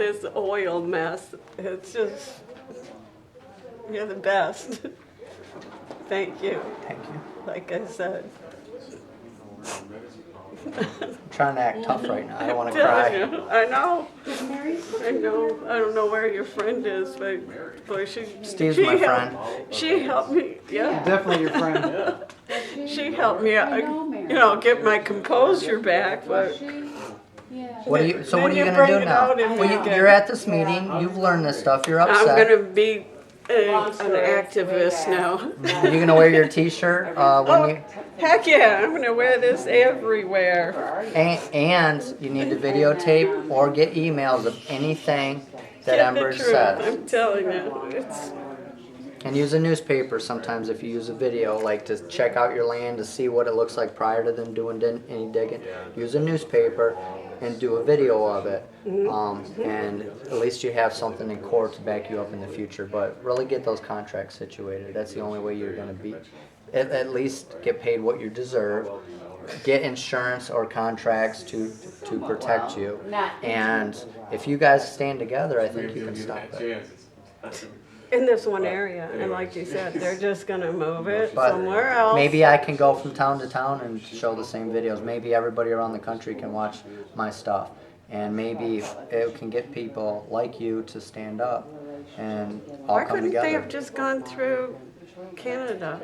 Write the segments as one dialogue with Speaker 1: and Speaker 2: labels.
Speaker 1: this oil mess. It's just, you're the best. Thank you,
Speaker 2: Thank you.
Speaker 1: like I said.
Speaker 2: I'm trying to act tough right now. I don't want to
Speaker 1: Telling
Speaker 2: cry.
Speaker 1: you, I know, I know, I don't know where your friend is, but, but she.
Speaker 2: Steve's
Speaker 1: she
Speaker 2: my
Speaker 1: helped-
Speaker 2: friend.
Speaker 1: She helped me, yeah,
Speaker 2: Definitely your friend.
Speaker 1: she helped me, uh, you know, get my composure back, but.
Speaker 3: Yeah.
Speaker 2: What are you? So what are
Speaker 1: Then
Speaker 2: you
Speaker 1: you
Speaker 2: gonna
Speaker 1: bring
Speaker 2: do
Speaker 1: it
Speaker 2: now?
Speaker 1: out and
Speaker 2: Well,
Speaker 1: we
Speaker 2: you,
Speaker 1: can-
Speaker 2: you're at this meeting. You've learned this stuff. You're
Speaker 1: I'm
Speaker 2: upset.
Speaker 1: gonna be a,
Speaker 4: Long
Speaker 1: an
Speaker 4: story, it's way
Speaker 1: activist
Speaker 4: back.
Speaker 1: now.
Speaker 2: Are you gonna wear your T-shirt uh,
Speaker 1: Oh,
Speaker 2: when you?
Speaker 1: heck yeah, I'm gonna wear this everywhere.
Speaker 2: And, and you need to videotape or get emails of anything
Speaker 1: Get
Speaker 2: that
Speaker 1: the
Speaker 2: Ember
Speaker 1: truth,
Speaker 2: says.
Speaker 1: I'm telling you, it's,
Speaker 2: And use a newspaper sometimes if you use a video, like to check out your land to see what it looks like prior to them doing din- any digging. Use a newspaper and do a video of it. Um, and at least you have something in court to back you up in the future. But really get those contracts situated. That's the only way you're going to be. At, at least get paid what you deserve. Get insurance or contracts to to protect you. And if you guys stand together, I think you can stop it.
Speaker 1: in this one area, and like you said, they're just gonna move it
Speaker 2: But
Speaker 1: somewhere else.
Speaker 2: Maybe I can go from town to town and show the same videos. Maybe everybody around the country can watch my stuff. And maybe it can get people like you to stand up and all
Speaker 1: Why
Speaker 2: come
Speaker 1: couldn't they have
Speaker 2: together.
Speaker 1: just gone through Canada?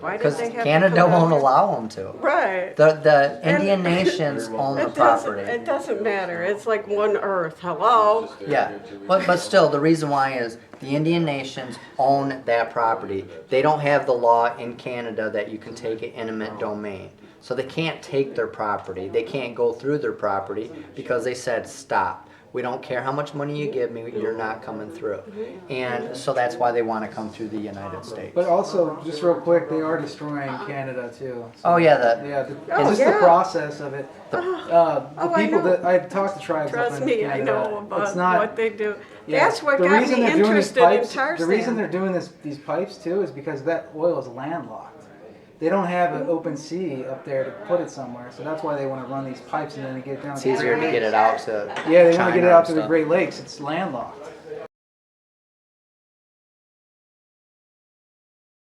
Speaker 1: Why did
Speaker 2: Because
Speaker 1: they have to come
Speaker 2: Canada
Speaker 1: out
Speaker 2: won't
Speaker 1: here?
Speaker 2: allow them to.
Speaker 1: Right.
Speaker 2: The, the
Speaker 1: And-
Speaker 2: Indian nations own the
Speaker 1: It doesn't,
Speaker 2: property.
Speaker 1: it doesn't matter, it's like one earth, hello?
Speaker 2: Yeah, but, but still, the reason why is the Indian nations own that property. They don't have the law in Canada that you can take an eminent domain. So they can't take their property. They can't go through their property because they said, stop. We don't care how much money you give me, you're not coming through. And so that's why they want to come through the United States.
Speaker 5: But also, just real quick, they are destroying Canada too.
Speaker 2: Oh, yeah, the,
Speaker 5: Yeah, the,
Speaker 1: Oh,
Speaker 5: just
Speaker 1: yeah.
Speaker 5: the process of it. uh, the
Speaker 1: Oh, I
Speaker 5: people
Speaker 1: know.
Speaker 5: that I talked to tribes. up
Speaker 1: Trust
Speaker 5: in
Speaker 1: me, I
Speaker 5: Canada,
Speaker 1: know
Speaker 5: It's
Speaker 1: about
Speaker 5: not.
Speaker 1: what they do.
Speaker 5: yeah,
Speaker 1: That's what
Speaker 5: the
Speaker 1: got
Speaker 5: reason
Speaker 1: me
Speaker 5: they're doing these
Speaker 1: interested in
Speaker 5: pipes- The reason they're
Speaker 1: Tarzan.
Speaker 5: doing this, these pipes too, is because that oil is landlocked. They don't have an open sea up there to put it somewhere, so that's why they want to run these pipes and then get it down.
Speaker 2: it's
Speaker 5: to the
Speaker 2: easier to
Speaker 5: Great
Speaker 2: get it out to.
Speaker 5: Lakes. Yeah, they want to
Speaker 2: China
Speaker 5: get it out
Speaker 2: and
Speaker 5: to the
Speaker 2: stuff.
Speaker 5: Great Lakes. It's landlocked.